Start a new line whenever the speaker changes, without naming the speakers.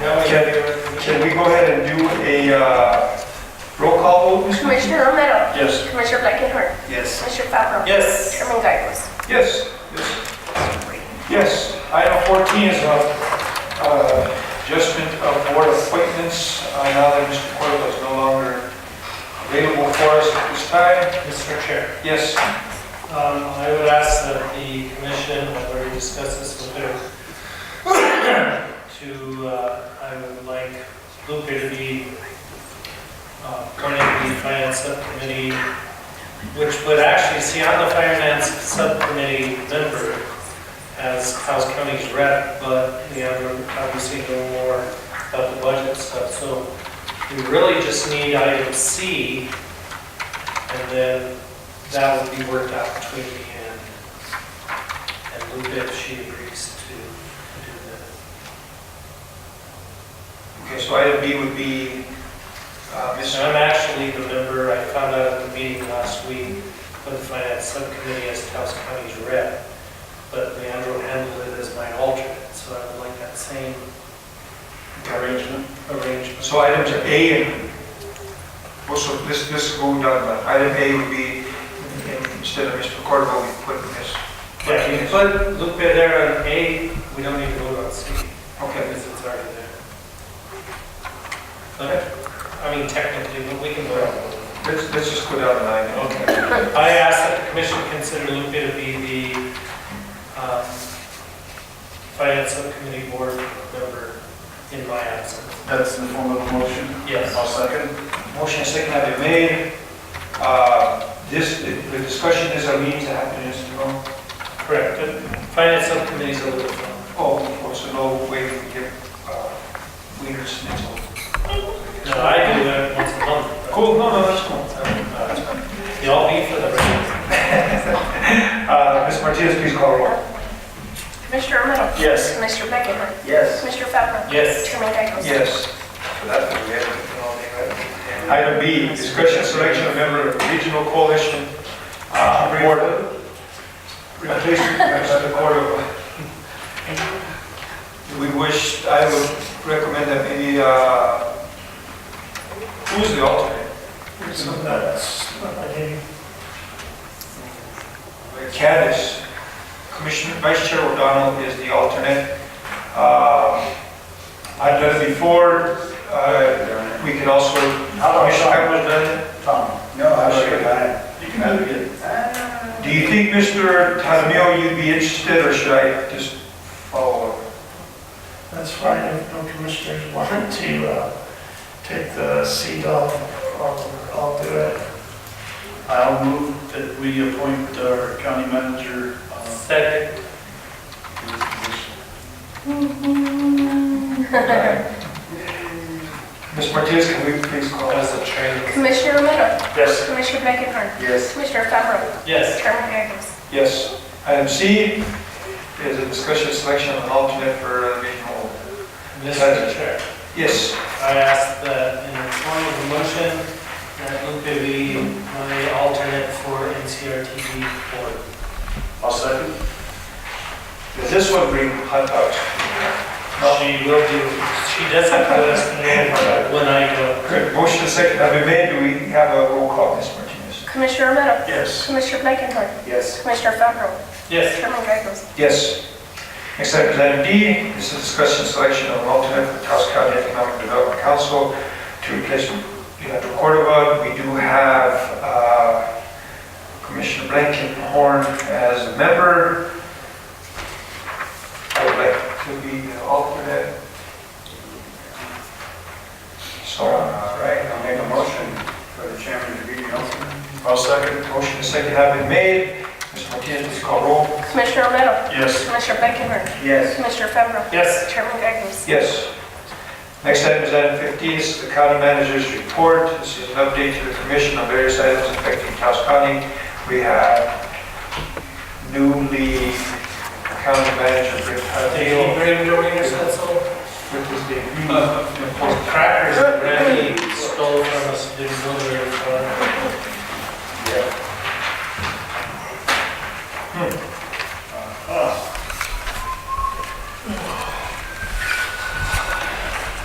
Can, can we go ahead and do a uh, roll call vote? Mr.
Commissioner Romero.
Yes.
Commissioner Blankenhorn.
Yes.
Commissioner Fabro.
Yes.
Chairman Gagos.
Yes. Yes, item 14 is uh, uh, adjustment of board appointments. Uh, Now that Mr. Cuervo is no longer available for us at this time.
Mr. Chair,
Yes,
um, I would ask that the commission, I've already discussed this with her, to, uh, I would like Luca to be uh, appointed to the finance subcommittee, which would actually, see, I'm the finance subcommittee member as House County's rep, but we have obviously no more about the budget stuff, so we really just need item C, and then that will be worked out between me and, and Lupe if she agrees to do that.
okay, so item B would be uh, Ms.
So I'm actually the member, I found out at the meeting last week, of the finance subcommittee as Taos County's rep, but Leandro handled it as my alternate, so I would like that same
Arrangement.
arrangement.
So item to A, and also this, this is going down, but item A would be, instead of Mr. Cuervo, we put Ms.
Yeah, you put Lupe there on A, we don't need to vote on C,
Okay,
because it's already there. But, I mean technically, but we can vote on it.
let's, let's just go down the line.
Okay. I ask that the commission consider Lupe to be the um, finance subcommittee board member in my absence.
That's in the form of a motion?
Yes.
I'll second.
Motion second have been made. Uh, This, the the discussion is our meetings that happen in the room.
Correct. The Finance subcommittee is a little bit,
Oh, of course, so no way we can get uh, wieners and so.
no, I do that once a month.
Cool, no, no, that's cool.
but Y'all be for the rest.
Uh, Ms. Martinez, please call roll.
Commissioner Romero.
Yes.
Commissioner Blankenhorn.
Yes.
Commissioner Fabro.
Yes.
Chairman Gagos.
Yes. So that's what we have. Item B, discussion selection of member of regional coalition uh, board. Replacement of the board of. We wish, I would recommend that maybe, uh, who's the alternate? Candace, Commissioner, Vice Chair O'Donnell is the alternate. Uh, I've done it before, uh, we could also,
How about
Commissioner
Sean?
Pepper's done it.
Tom? No, I should have done it. You can do it.
Do you think, Mr. Tadamio, you'd be interested, or should I just follow? up?
That's fine, if no commissioners want to uh, take the seat, I'll, I'll- I'll do it.
I'll move that we appoint our county manager. uh,
Second.
to this position.
Ms. Martinez, can we please call?
That was a training.
Commissioner Romero.
Yes.
Commissioner Blankenhorn.
Yes.
Commissioner Fabro.
Yes.
Chairman Gagos.
Yes. Item C is a discussion selection of an alternate for uh, regional.
Mr. Chair.
Yes,
I ask that in the form of a motion, that Lupe be my alternate for NCRTV board.
I'll second.
does this one bring hot dogs?
She will do, she does have to let us know when I go.
Good, motion second, have been made, do we have a roll call, Ms. Martinez?
Commissioner Romero.
Yes.
Commissioner Blankenhorn.
Yes.
Commissioner Fabro.
Yes,
Chairman Gagos.
Yes. Next item is item D, this is discussion selection of an alternate for Taos County Economic Development Council to replace Leandro Cordova. We do have uh, Commissioner Blankenhorn as a member. I would like to be the alternate. So,
All
uh,
right, I'll make a motion for the chairman to be the alternate.
I'll second.
motion and second have been made. Ms. Martinez, please call roll.
Commissioner Romero.
Yes.
Commissioner Blankenhorn.
Yes.
Commissioner Fabro.
yes,
Chairman Gagos.
Yes. Next item is item 15, this is the county manager's report. This is an update to the commission on various items affecting Taos County. We have newly county manager Rick
they will
Padilla.
bring the wieners, that's all.
Rick was the-
Uh, Crackers that Randy stole from us, didn't deliver it for.